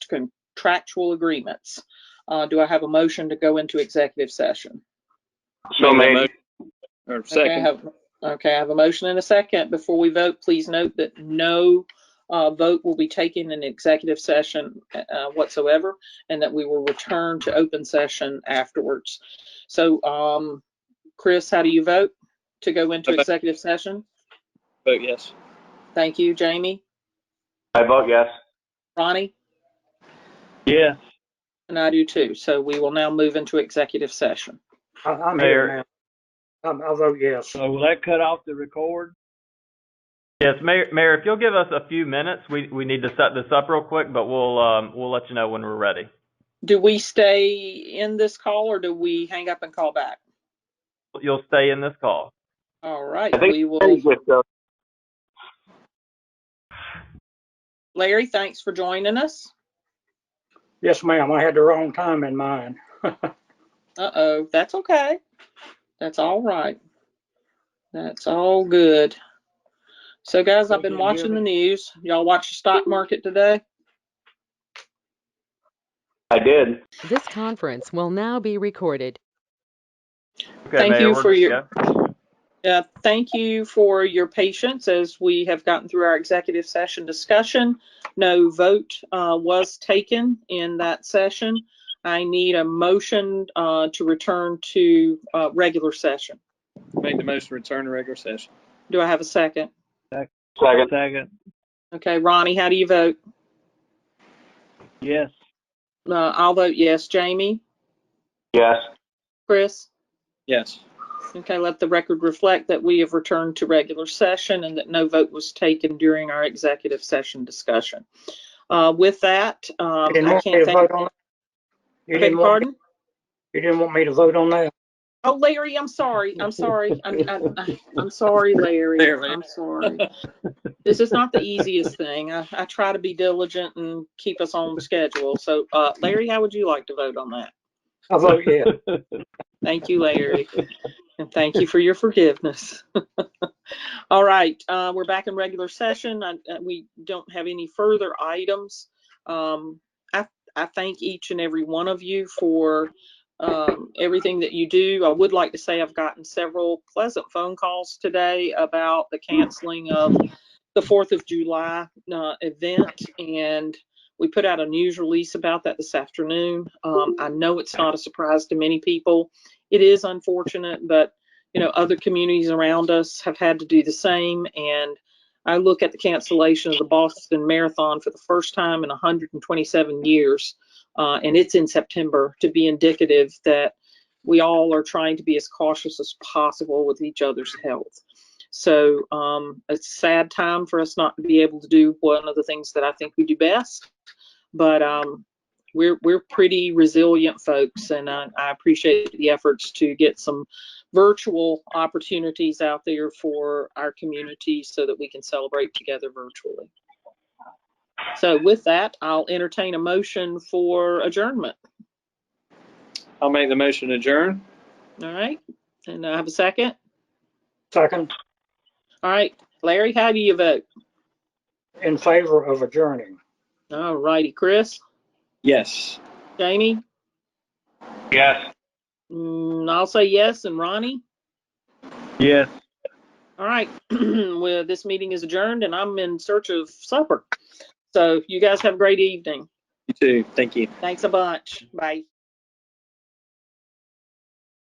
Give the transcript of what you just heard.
contractual agreements. Uh, do I have a motion to go into executive session? So Make a made. Or Okay, I second. have- Okay, I have a motion and a second. Before we vote, please note that no uh, vote will be taken in executive session uh, whatsoever, and that we will return to open session afterwards. So, um, Chris, how do you vote to go into I vote- executive session? Vote yes. Thank you, Jamie. I vote yes. Ronnie? Yes. And I do too. So we will now move into executive session. I- I'm Mayor. here now. I'm- I vote yes. So will that cut off the record? Yes, Mayor, Mayor, if you'll give us a few minutes, we, we need to set this up real quick, but we'll, um, we'll let you know when we're ready. Do we stay in this call or do we hang up and call back? You'll stay in this call. All right, I think- we will. Larry, thanks for joining us. Yes, ma'am, I had the wrong time in mind. Uh-oh, that's okay. That's all right. That's all good. So guys, I've been Can you hear watching the news. Y'all watch the stock market today? I did. This conference will now be recorded. Thank you for your- Uh, Thank you for your patience as we have gotten through our executive session discussion. No vote uh, was taken in that session. I need a motion uh, to return to uh, regular session. Make the motion to return to regular session. Do I have a second? Second. Second. Okay, Ronnie, how do you vote? Yes. Uh, I'll vote yes. Jamie? Yes. Chris? Yes. Okay, let the record reflect that we have returned to regular session and that no vote was taken during our executive session discussion. Uh, With that, um, You didn't I want me can't to thank. vote on that? You Beg didn't want, pardon? you didn't want me to vote on that? Oh, Larry, I'm sorry. I'm sorry. I'm, I'm- I'm, I'm sorry, Larry. There, Larry. I'm sorry. This is not the easiest thing. I, I try to be diligent and keep us on schedule. So, uh, Larry, how would you like to vote on that? I vote yes. Thank you, Larry. And thank you for your forgiveness. All right, uh, we're back in regular session. I- uh, We don't have any further items. Um, I, I thank each and every one of you for um, everything that you do. I would like to say I've gotten several pleasant phone calls today about the canceling of the Fourth of July uh, event. And we put out a news release about that this afternoon. Um, I know it's not a surprise to many people it is unfortunate, but you know, other communities around us have had to do the same. And I look at the cancellation of the Boston Marathon for the first time in 127 years, uh, and it's in September to be indicative that we all are trying to be as cautious as possible with each other's health. So um, it's a sad time for us not to be able to do one of the things that I think we do best. But um, we're we're pretty resilient folks and I, I appreciate the efforts to get some virtual opportunities out there for our community so that we can celebrate together virtually so with that i'll entertain a motion for adjournment I'll make the motion to adjourn. all right and i have a second Second, all right larry how do you vote in favor of adjourning. all righty chris Yes. jamie Yes. Mm, i'll say yes and ronnie Yes. All right, well, this meeting is adjourned and I'm in search of supper. So you guys have a great evening. You too. Thank you. Thanks a bunch. Bye.